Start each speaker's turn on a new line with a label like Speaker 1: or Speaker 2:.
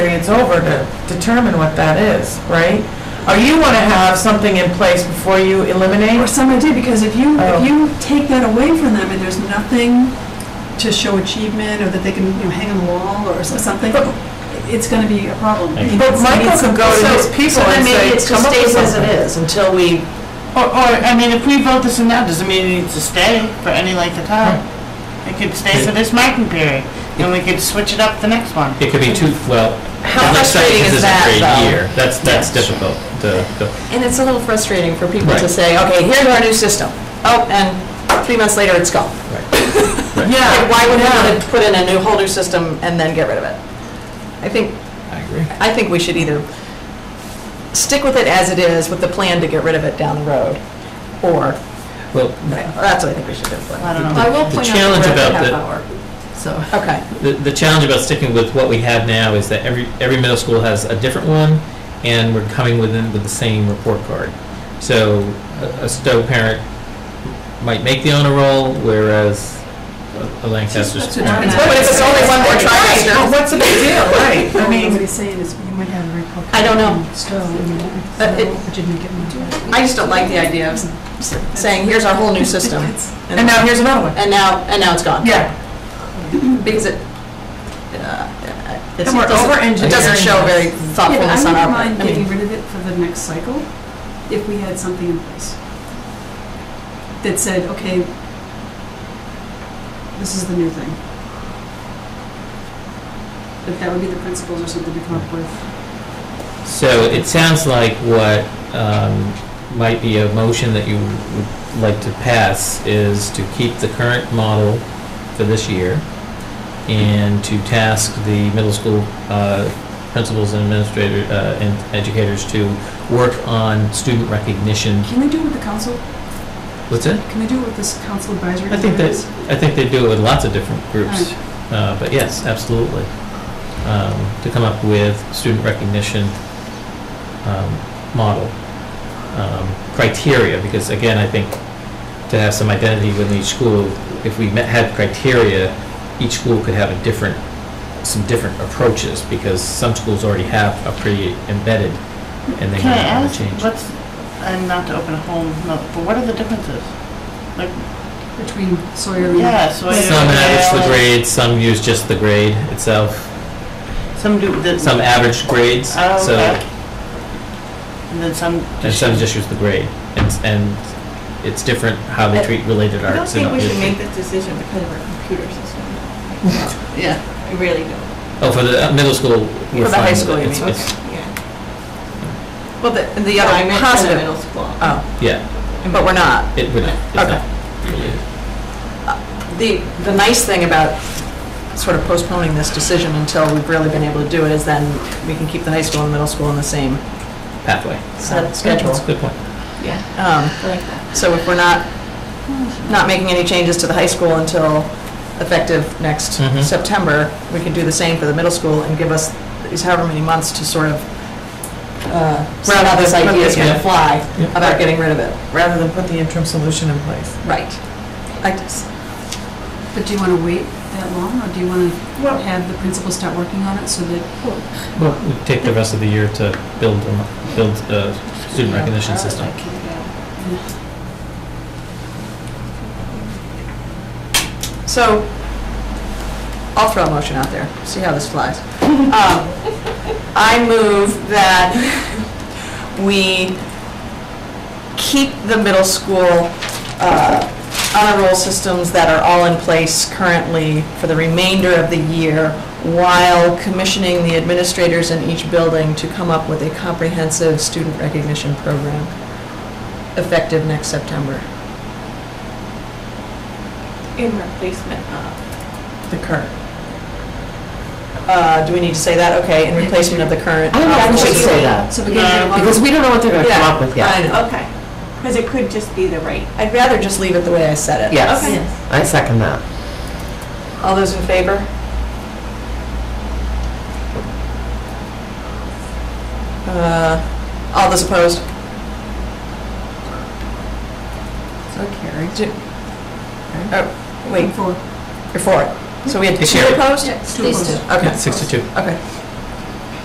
Speaker 1: period's over to determine what that is, right? Or you want to have something in place before you
Speaker 2: Or
Speaker 1: eliminate?
Speaker 2: some idea, because if you,
Speaker 1: Oh.
Speaker 2: if you take that away from them and there's nothing to show achievement or that they can, you know, hang on the wall or so- something, it's gonna be a problem.
Speaker 3: Thank you.
Speaker 1: But Michael could go to his people and say, come up with
Speaker 4: So then maybe it just stays as it
Speaker 1: something.
Speaker 4: is until we,
Speaker 5: Or, or, I mean, if we vote this in now, doesn't mean it needs to stay for any length of time. It could stay for this marking period, and we could switch it up the next one.
Speaker 3: It could be two, well,
Speaker 4: How
Speaker 3: it looks like
Speaker 4: frustrating
Speaker 3: this
Speaker 4: is
Speaker 3: isn't
Speaker 4: that,
Speaker 3: for a
Speaker 4: though?
Speaker 3: year. That's, that's difficult to, to-
Speaker 4: and it's a little frustrating for people to
Speaker 3: Right.
Speaker 4: say, okay, here's our new system. Oh, and three months later, it's gone.
Speaker 1: Yeah.
Speaker 4: Like, why would we
Speaker 1: yeah.
Speaker 4: want to put in a new whole new system and then get rid of it? I think,
Speaker 3: I agree.
Speaker 4: I think we should either stick with it as it is with the plan to get rid of it down the road, or,
Speaker 3: Well,
Speaker 4: that's what I think we should do.
Speaker 5: I don't know.
Speaker 6: I will
Speaker 3: The
Speaker 6: point
Speaker 3: challenge
Speaker 6: out that we're at
Speaker 3: about
Speaker 6: the
Speaker 3: the-
Speaker 6: half hour, so.
Speaker 4: Okay,
Speaker 3: the, the challenge about sticking with what we have now is that every, every middle school has a different one, and we're coming within with the same report card. So a, a Stowe parent might make the honor roll, whereas a- a Lancaster's
Speaker 2: That's what John
Speaker 3: parent.
Speaker 2: and I-
Speaker 4: But if it's only one more
Speaker 1: Right,
Speaker 4: trimester.
Speaker 1: but what's the big deal, right? I mean,
Speaker 2: Nobody's saying is, you might have a report.
Speaker 4: I don't know.
Speaker 2: Still, you know,
Speaker 4: But it-
Speaker 2: so, but you didn't get one.
Speaker 4: I just don't like the idea of s- saying, here's our whole new system,
Speaker 2: It's-
Speaker 1: and now here's another one.
Speaker 4: and now, and now it's gone.
Speaker 1: Yeah.
Speaker 4: Because it, uh, it's-
Speaker 1: And we're
Speaker 4: it doesn't,
Speaker 1: over-engineering
Speaker 4: it doesn't show very
Speaker 2: Yeah, but
Speaker 4: thoughtfulness on our
Speaker 2: I
Speaker 4: part.
Speaker 2: wouldn't
Speaker 4: I
Speaker 2: mind getting
Speaker 4: mean,
Speaker 2: rid of it for the next cycle if we had something in place that said, okay, this is the new thing. That that would be the principles or something to come up with.
Speaker 3: So it sounds like what um, might be a motion that you would like to pass is to keep the current model for this year and to task the middle school uh, principals and administrator, uh, and educators to work on student recognition.
Speaker 2: Can we do it with the council?
Speaker 3: What's that?
Speaker 2: Can we do it with this council advisory?
Speaker 3: I think that,
Speaker 2: committees?
Speaker 3: I think they do it with lots of different groups.
Speaker 5: Mm.
Speaker 3: Uh, But yes, absolutely. Um, To come up with student recognition um, model um, criteria, because again, I think to have some identity within each school, if we met- had criteria, each school could have a different, some different approaches, because some schools already have a pretty embedded, and they
Speaker 5: Can I
Speaker 3: might want to
Speaker 5: ask,
Speaker 3: change.
Speaker 5: what's, and not to open a whole, no, but what are the differences?
Speaker 2: Between Sawyer and.
Speaker 5: Yeah, so. I-
Speaker 3: Some average the grade, some use just the grade itself,
Speaker 5: Some do, the.
Speaker 3: some average grades,
Speaker 5: Oh,
Speaker 3: so
Speaker 5: okay. And then some.
Speaker 3: And some just use the grade, and, and it's different how they treat related
Speaker 6: I don't
Speaker 3: arts. and
Speaker 6: think we should
Speaker 3: other-
Speaker 6: make this decision because of our computer system. Yeah. I really don't,
Speaker 3: Oh, for the uh, middle school, we're fine.
Speaker 4: For the high
Speaker 3: with
Speaker 4: school,
Speaker 3: it.
Speaker 4: you
Speaker 3: It's-
Speaker 4: mean.
Speaker 3: it's-
Speaker 6: yeah.
Speaker 4: well, the, the
Speaker 6: Yeah, I
Speaker 4: other
Speaker 6: meant in the
Speaker 4: positive,
Speaker 6: middle school.
Speaker 4: oh,
Speaker 3: Yeah,
Speaker 4: but we're not.
Speaker 3: it would, it's
Speaker 4: Okay.
Speaker 3: not related.
Speaker 4: The, the nice thing about sort of postponing this decision until we've really been able to do it is then we can keep the high school and middle school in the same
Speaker 3: pathway.
Speaker 4: set
Speaker 3: That's
Speaker 4: schedule.
Speaker 3: a good point.
Speaker 6: Yeah,
Speaker 4: Um,
Speaker 6: I like that.
Speaker 4: So if we're not, not making any changes to the high school until effective next
Speaker 1: Mm-hmm.
Speaker 3: Mhm.
Speaker 4: September, we can do the same for the middle school and give us these however many months to sort of uh, round out this idea is going
Speaker 3: Yeah.
Speaker 4: to fly
Speaker 3: Yeah.
Speaker 4: about getting rid of it.
Speaker 1: Rather than put the interim solution in place.
Speaker 4: Right. I just-
Speaker 2: But do you want to wait that long or do you want to have the principals start working on it so that?
Speaker 3: Well, we take the rest of the year to build, a- build a student recognition system.
Speaker 4: So I'll throw a motion out there, see how this flies. Um, I move that we keep the middle school uh, honor roll systems that are all in place currently for the remainder of the year while commissioning the administrators in each building to come up with a comprehensive student recognition program effective next September,
Speaker 6: In replacement of.
Speaker 4: the current. Uh, Do we need to say that? Okay, in replacement of the current.
Speaker 2: I think we should say
Speaker 4: that.
Speaker 2: So we can
Speaker 1: uh,
Speaker 2: get a lot of-
Speaker 4: we don't know what they're going to come up with yet. I know.
Speaker 6: Okay, because it could just be the right.
Speaker 4: I'd rather just leave it the way I said it.
Speaker 7: Yes.
Speaker 6: Okay.
Speaker 7: I second that.
Speaker 4: All those in favor? Uh, All those opposed?
Speaker 7: So carried.
Speaker 4: Wait,
Speaker 2: For
Speaker 4: you're for it. So we had
Speaker 3: It's
Speaker 4: two
Speaker 3: here.
Speaker 4: opposed?
Speaker 2: Yeah, two These opposed.
Speaker 4: Okay.
Speaker 3: Yeah, Six to two.
Speaker 4: Okay.